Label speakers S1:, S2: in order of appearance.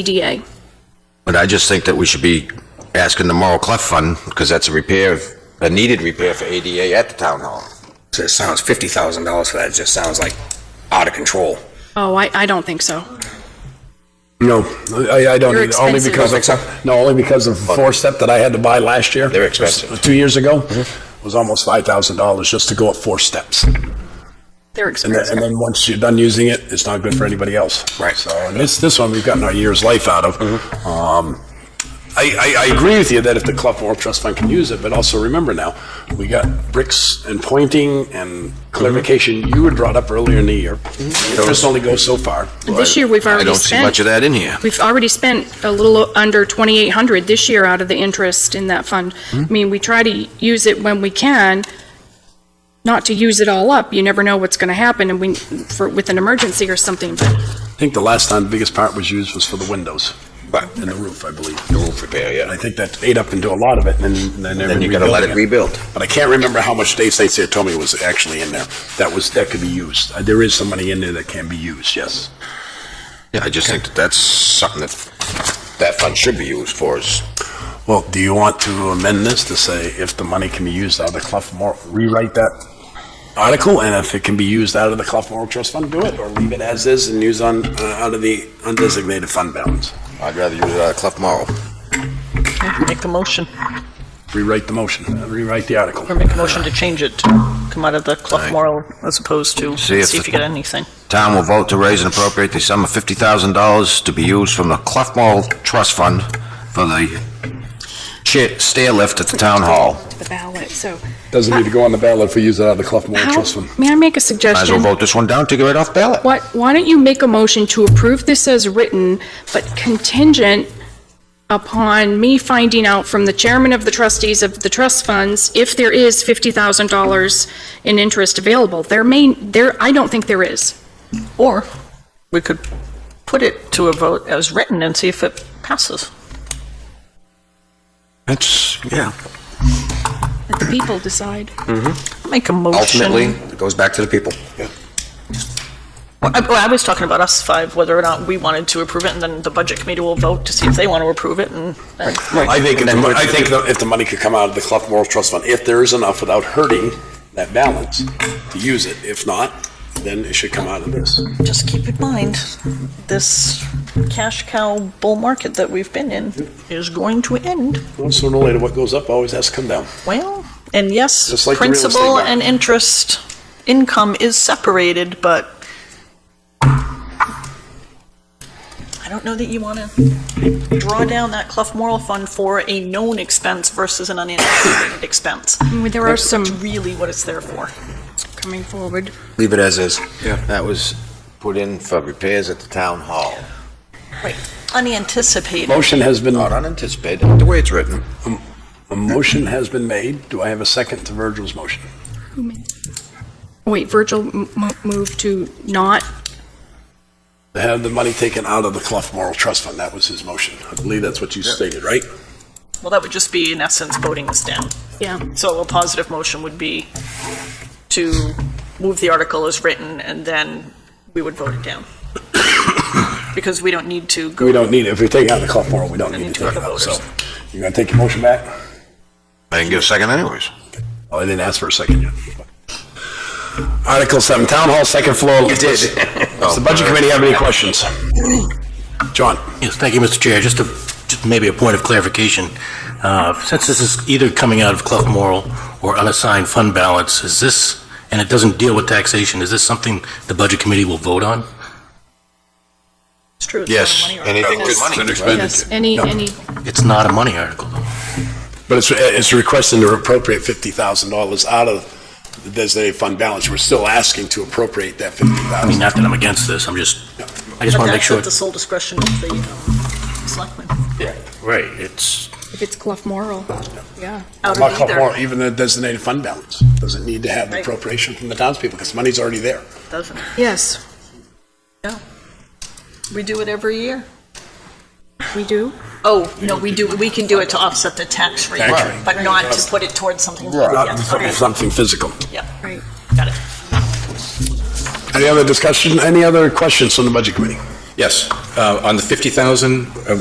S1: EDA.
S2: But I just think that we should be asking the Moral Cleft Fund, because that's a repair, of- a needed repair for ADA at the town hall.
S3: So it sounds fifty thousand dollars for that. Just sounds like out of control.
S1: Oh, I, I don't think so.
S4: No, I, I don't,
S1: They're
S4: either. only
S1: expensive.
S4: because
S3: Don't think so?
S4: of, no, only because of four-step that I had to buy last year.
S2: They're expensive. Mm-hmm.
S4: Two years ago, was almost five thousand dollars just to go up four steps. And
S1: They're
S4: then, and
S1: expensive.
S4: then once you're done using it, it's not good for anybody else.
S3: Right.
S4: So, and this, this one, we've gotten our year's life out of.
S2: Mm-hmm.
S4: Um, I, I, I agree with you that if the Clough Warp Trust Fund can use it, but also remember now, we got bricks and pointing and clarification you had brought up earlier in the year.
S2: Mm-hmm.
S4: Interest only goes so far.
S1: This year, we've
S2: I
S1: already
S2: don't see much
S1: spent,
S2: of that in here.
S1: we've already spent a little under 2,800 this year out of the interest in that fund.
S2: Hmm?
S1: I mean, we try to use it when we can, not to use it all up. You never know what's going to happen and we, for, with an emergency or something, but
S4: I think the last time the biggest part was used was for the windows.
S2: But
S4: and the roof, I believe.
S2: the roof repair,
S4: And
S2: yeah.
S4: I think that ate up into a lot of it, and then- then. they
S2: Then
S4: were
S2: you gotta let it
S4: rebuilding
S2: rebuild.
S4: But I can't remember how much Dave St. Cyr told me was actually in there. That was, that could be used. Uh, There is some money in there that can be used, yes.
S2: Yeah, I just think that that's something that that fund should be used for is,
S4: Well, do you want to amend this to say if the money can be used out of the Clough Moral, rewrite that article, and if it can be used out of the Clough Moral Trust Fund, do it, or leave it as is and use on, uh, out of the undesignated fund balance?
S2: I'd rather use uh, it out of Cleft Moral.
S5: Make a motion,
S4: Rewrite the motion, uh, rewrite the article.
S5: or make a motion to change it, to come out of the Clough Moral as opposed to,
S2: See
S5: see
S2: if
S5: if
S2: the-
S5: you get anything.
S2: Town will vote to raise and appropriate the sum of fifty thousand dollars to be used from the Cleft Moral Trust Fund for the chair, stair lift at the town hall.
S1: to the ballot, so.
S4: Doesn't need to go on the ballot if we use it out of the Clough Moral
S1: How,
S4: Trust Fund.
S1: may I make a
S2: Might as well
S1: suggestion?
S2: vote this one down to get it off ballot.
S1: What, why don't you make a motion to approve this as written, but contingent upon me finding out from the chairman of the trustees of the trust funds if there is $50,000 in interest available? There may, there, I don't think there is.
S5: Or we could put it to a vote as written and see if it passes.
S2: That's, yeah.
S1: Let the people decide.
S5: Make a motion.
S2: Ultimately,
S3: It goes back to the people.
S5: Well, I well, I was talking about us five, whether or not we wanted to approve it, and then the budget committee will vote to see if they want to approve it, and then
S4: I
S2: And
S4: think, if the
S2: then
S4: mo-
S2: put
S4: I
S2: it-
S4: think the- if the money could come out of the Clough Moral Trust Fund, if there is enough without hurting that balance to use it. If not, then it should come out of this.
S5: just keep in mind, this cash cow bull market that we've been in is going to end.
S4: Well, Sooner or later, what goes up always has to come down.
S5: Well, and yes,
S4: Just like the real estate
S5: principal
S4: market.
S5: and interest income is separated, but I don't know that you want to draw down that Clough Moral Fund for a known expense versus an unanticipated expense.
S1: There are some
S5: It's really what it's there for.
S1: coming forward.
S2: Leave it as is. Yeah. That was put in for repairs at the town hall.
S5: Unanticipated.
S4: Motion has been,
S2: Not unanticipated, the way it's written.
S4: a motion has been made. Do I have a second to Virgil's motion?
S1: Wait, Virgil m- m- moved to not,
S4: To have the money taken out of the Clough Moral Trust Fund, that was his motion. I believe that's what you stated, right?
S5: Well, that would just be in essence voting this down.
S1: yeah.
S5: So a positive motion would be to move the article as written, and then we would vote it down. Because we don't need to go.
S4: We don't need it. If we take it out of the Clough Moral, we don't need to take it out, so. You gonna take your motion back?
S2: I didn't get a second anyways.
S4: Oh, I didn't ask for a second yet. Article seven, Town Hall, second floor. You did. Does the Budget Committee have any questions? John?
S6: Yes, thank you, Mr. Chair. Just a, just maybe a point of clarification. Uh, Since this is either coming out of Clough Moral or unassigned fund balance, is this, and it doesn't deal with taxation, is this something the Budget Committee will vote on?
S5: It's true. it's
S2: Yes,
S5: not money or-
S2: anything with
S5: Yes.
S2: money.
S1: Yes, any, any,
S6: It's not a money article, though.
S4: But it's, it's requesting to appropriate fifty thousand dollars out of the designated fund balance. We're still asking to appropriate that fifty
S6: I mean,
S4: thousand.
S6: not that I'm against this, I'm just, I
S5: But
S6: just want to make
S5: that's
S6: sure.
S5: at the sole discretion of the um, selectmen.
S6: Right, it's,
S1: if it's Clough Moral, yeah.
S5: Out of either,
S4: Even the designated fund balance doesn't need to have the
S5: Right.
S4: appropriation from the townspeople because money's already there.
S5: doesn't it?
S1: Yes,
S5: We do it every year.
S1: we do.
S5: Oh, no, we do, we can do it to offset the tax rate,
S4: Tax rate.
S5: but not to put it towards something.
S4: Not
S5: Yeah,
S4: from
S5: okay,
S4: something physical.
S5: Yeah,
S1: Right.
S5: got it.
S4: Any other discussion, any other questions from the Budget Committee?
S7: Yes, uh, on the 50,000, uh,